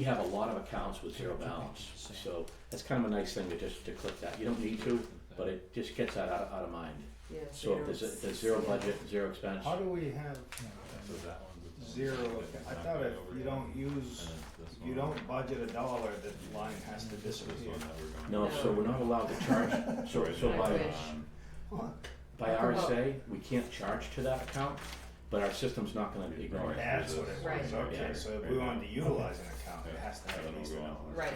We have a lot of accounts with zero balance, so that's kind of a nice thing to just to click that. You don't need to, but it just gets that out of, out of mind. Yeah. So if there's, a- if there's zero budget, zero expense, How do we have zero, I thought if you don't use, if you don't budget a dollar, that line has to disappear. no, so we're not allowed to charge, so, so I by, wish. by RSA, we can't charge to that account, but our system's not gonna ignore it. That's what it was, Right. okay, so if we wanted to utilize an account, it has to have at least a dollar, Right.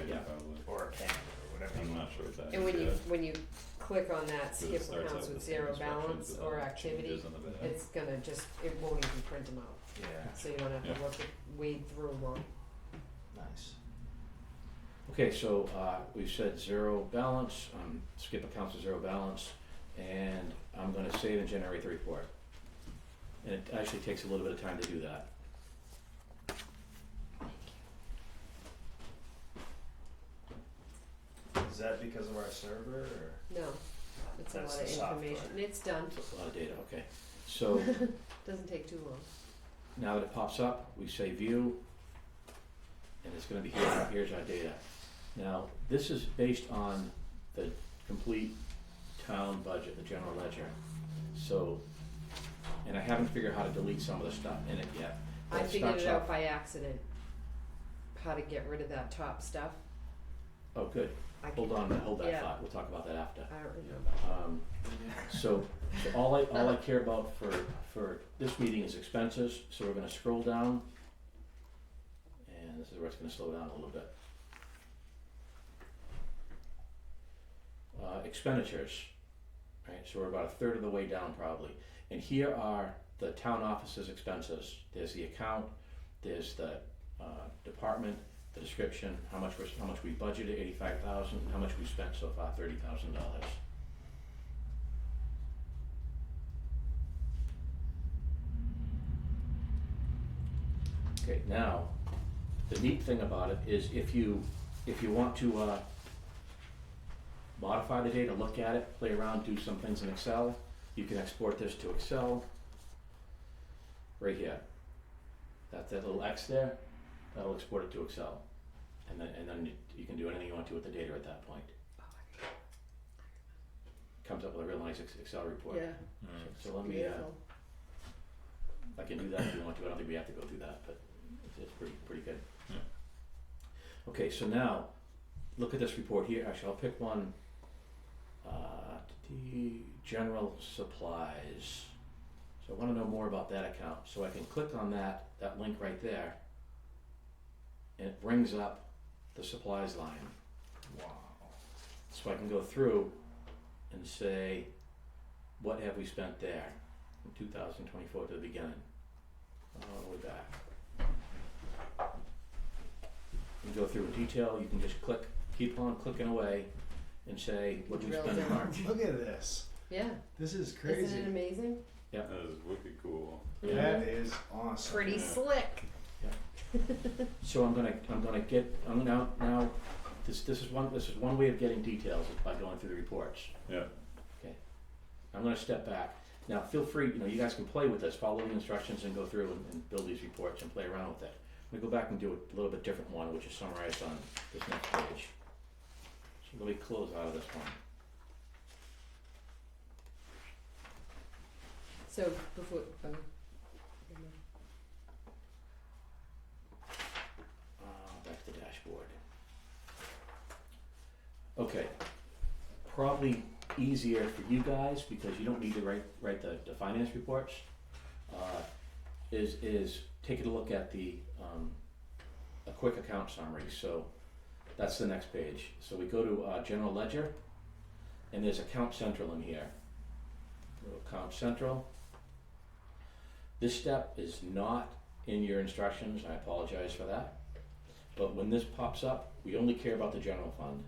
or a can, or whatever. I'm you not want. sure what that is. And when you, yet, when you click on that 'cause skip it starts accounts out with the same zero instructions, balance but or then it activity, changes on the back. it's gonna just, it won't even print them out, Yeah, so you don't have to Yeah. look, at- wade through them all. nice. Okay, so, uh, we've said zero balance, um, skip accounts to zero balance, and I'm gonna save and generate the report. And it actually takes a little bit of time to do that. Is that because of our server, or? No, it's a That's lot the of software. information, and it's done, It's a lot of data, okay. So doesn't take too long. now that it pops up, we say view, and it's gonna be here, here's our data. Now, this is based on the complete town budget, the general ledger. So, and I haven't figured out how to delete some of the stuff in it yet. but I figured starts it off- out by accident, how to get rid of that top stuff, Oh, good, I hold on, hold that Yeah. thought, we'll talk about that after. I don't remember, Um, so, so all I, all I care about for, for this meeting is expenses, so we're gonna scroll down. And this is where it's gonna slow down a little bit. Uh, expenditures, right, so we're about a third of the way down probably. And here are the town office's expenses, there's the account, there's the, uh, department, the description, how much we're, how much we budgeted, eighty-five thousand, how much we spent so far, thirty thousand dollars. Okay, now, the neat thing about it is if you, if you want to, uh, modify the data, look at it, play around, do some things in Excel, you can export this to Excel. Right here. That, that little X there, that'll export it to Excel. And then, and then you- you can do anything you want to with the data at that point. Comes up with a real nice Ex- Excel report. yeah, Mm. So let me, uh, beautiful, I can do that if you want to, I don't think we have to go through that, but it's, it's pretty, pretty good. Yeah. Okay, so now, look at this report here, actually, I'll pick one, uh, the general supplies. So I wanna know more about that account, so I can click on that, that link right there. And it brings up the supplies line, Wow. so I can go through and say, what have we spent there from two thousand twenty-four to the beginning? All the way back. You go through in detail, you can just click, keep on clicking away and say, what did we Drill spend in down. March? Look at this, yeah, this is isn't it crazy, amazing? That is wicked cool. that is awesome. Pretty Yeah. slick, So I'm gonna, I'm gonna get, I'm gonna, now, now, this, this is one, this is one way of getting details is by going through the reports. Yeah. I'm gonna step back. Now, feel free, you know, you guys can play with this, follow the instructions and go through and, and build these reports and play around with it. I'm gonna go back and do a little bit different one, which is summarized on this next page. So let me close out of this one. so before, um, Uh, back to the dashboard. Okay. Probably easier for you guys because you don't need to write, write the, the finance reports. Uh, is, is taking a look at the, um, a quick account summary, so that's the next page. So we go to, uh, general ledger and there's account central in here. Go to Account central. This step is not in your instructions, I apologize for that. But when this pops up, we only care about the general fund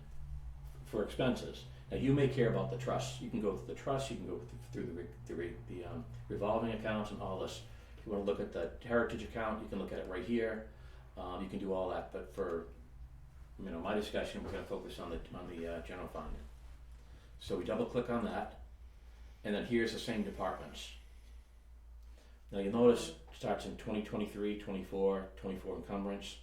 for expenses. Now, you may care about the trust. You can go through the trust, you can go th- through the, re- the, re- the um, revolving accounts and all this. If you want to look at the heritage account, you can look at it right here. Um, you can do all that, but for, you know, my discussion, we're gonna focus on the, on the, uh, general fund. So we double click on that, and then here's the same departments. Now, you'll notice, it starts in 2023, 24, 24 encumbrance,